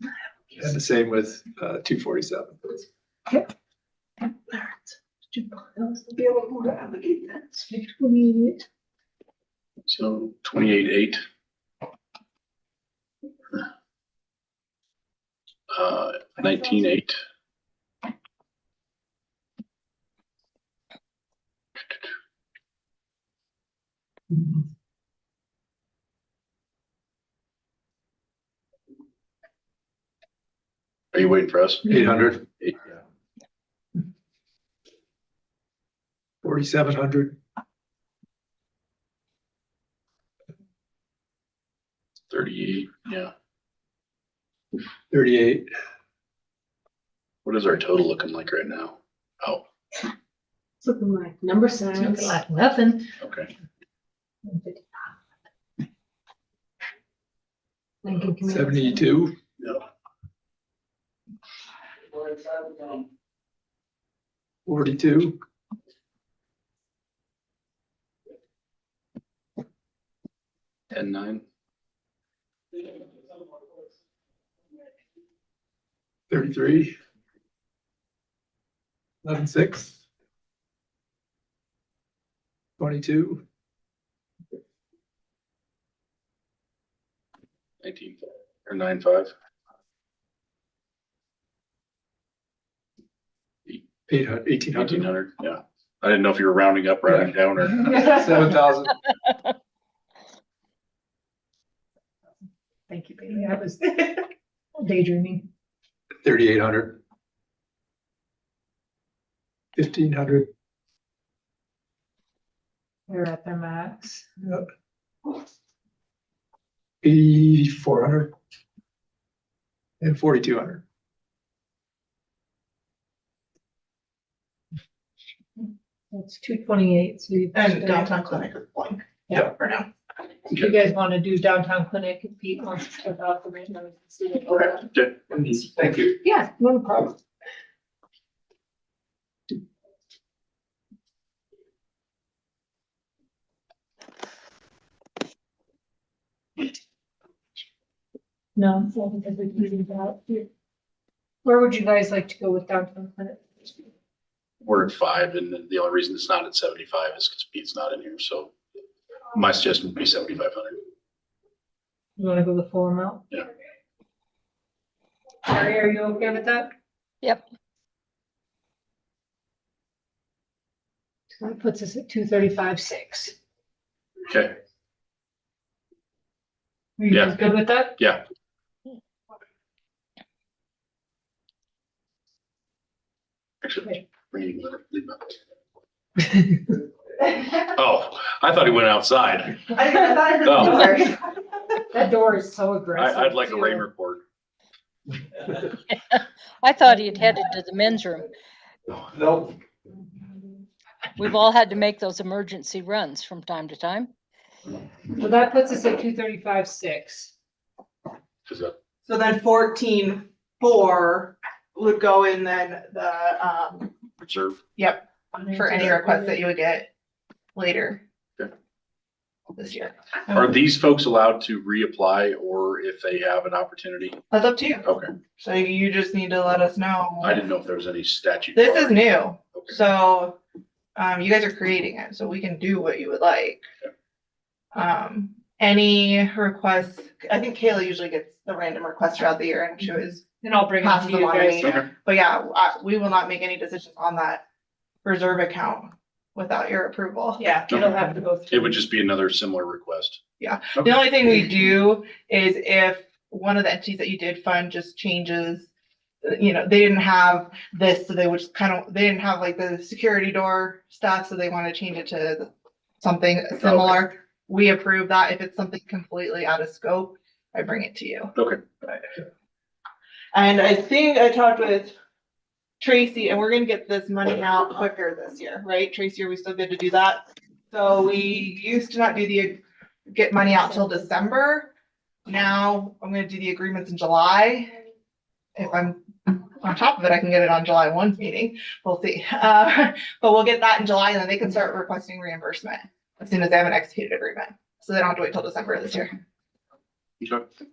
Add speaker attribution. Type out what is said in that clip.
Speaker 1: and the same with uh two forty-seven.
Speaker 2: So twenty-eight, eight. Uh, nineteen, eight. Are you waiting for us?
Speaker 1: Eight hundred,
Speaker 2: Eight,
Speaker 1: forty-seven hundred,
Speaker 2: Thirty, yeah.
Speaker 1: thirty-eight,
Speaker 2: What is our total looking like right now? Oh,
Speaker 3: Something like number
Speaker 4: Sounds
Speaker 3: signs.
Speaker 4: like nothing.
Speaker 2: okay.
Speaker 4: Lincoln Community.
Speaker 1: seventy-two.
Speaker 2: Yeah.
Speaker 1: Forty-two,
Speaker 2: Ten, nine.
Speaker 1: thirty-three. Eleven-six. Twenty-two,
Speaker 2: Nineteen or nine five.
Speaker 1: eight hundred, eighteen
Speaker 2: Eighteen
Speaker 1: hundred,
Speaker 2: hundred. yeah. I didn't know if you were rounding up, rounding down, or
Speaker 1: seven thousand,
Speaker 4: Thank you, Peter. I was daydreaming.
Speaker 1: thirty-eight hundred. Fifteen hundred,
Speaker 4: You're at their max.
Speaker 1: eighty-four hundred. And forty-two hundred.
Speaker 4: It's two twenty-eight, so you.
Speaker 5: And downtown clinic is blank.
Speaker 1: Yeah.
Speaker 5: For now.
Speaker 4: If you guys want to do downtown clinic, if Pete wants to check out the random. we can see what-
Speaker 2: Yeah.
Speaker 1: Thank you.
Speaker 4: Yeah, no problem. No, so I think we can leave it out here. Where would you guys like to go with downtown clinic?
Speaker 2: we're at five, and the- the only reason it's not at seventy-five is because Pete's not in here, so my suggestion would be seventy-five hundred.
Speaker 4: You wanna go the full amount?
Speaker 2: Yeah.
Speaker 4: Mary, are you okay with that?
Speaker 6: Yep.
Speaker 4: So That puts us at two thirty-five, six.
Speaker 2: Okay,
Speaker 4: Are you guys good with that?
Speaker 2: yeah, actually, bring it, leave it. Oh, I thought he went outside.
Speaker 5: I didn't- I thought I
Speaker 2: No.
Speaker 5: heard numbers.
Speaker 2: Oh.
Speaker 4: That door is so
Speaker 2: I,
Speaker 4: aggressive.
Speaker 2: I'd like a
Speaker 4: too.
Speaker 2: rain report.
Speaker 6: I thought he had headed to the men's room.
Speaker 1: Nope.
Speaker 6: We've all had to make those emergency runs from time to time.
Speaker 4: Well, that puts us at two thirty-five, six.
Speaker 2: Is that-
Speaker 5: So then fourteen four would go in then the, um,
Speaker 2: reserve.
Speaker 5: yep, for any requests that you would get later.
Speaker 2: Okay.
Speaker 5: This year. Oh.
Speaker 2: Are these folks allowed to reapply or if they have an opportunity?
Speaker 5: That's up to you.
Speaker 2: Okay,
Speaker 5: So you just need to let us know.
Speaker 2: I didn't know if there was any statute.
Speaker 5: This is new,
Speaker 2: Okay.
Speaker 5: so, um, you guys are creating it, so we can do what you would like. Um, any requests, I think Kayla usually gets the random requests throughout the year and she was,
Speaker 4: Then I'll bring it
Speaker 5: Passes
Speaker 4: to you
Speaker 5: along to
Speaker 4: guys.
Speaker 5: me.
Speaker 2: Okay,
Speaker 5: but yeah, I, we will not make any decisions on that reserve account without your approval.
Speaker 4: Yeah, it'll have to go through.
Speaker 2: it would just be another similar request.
Speaker 5: The only thing we do is if one of the entities that you did fund just changes, you know, they didn't have this, so they would just kind of, they didn't have like the security door stuff, so they want to change it to something similar. We approve that. If it's something completely out of scope, I bring it to you.
Speaker 2: Okay.
Speaker 5: But- And I think I talked with Tracy, and we're gonna get this money out quicker this year, right? Tracy, are we still good to do that? So we used to not do the, get money out till December. Now I'm gonna do the agreements in July. If I'm on top of it, I can get it on July one meeting. We'll see. Uh, but we'll get that in July and then they can start requesting reimbursement as soon as they have an executed agreement. So they don't have to wait till December this year.
Speaker 2: Okay.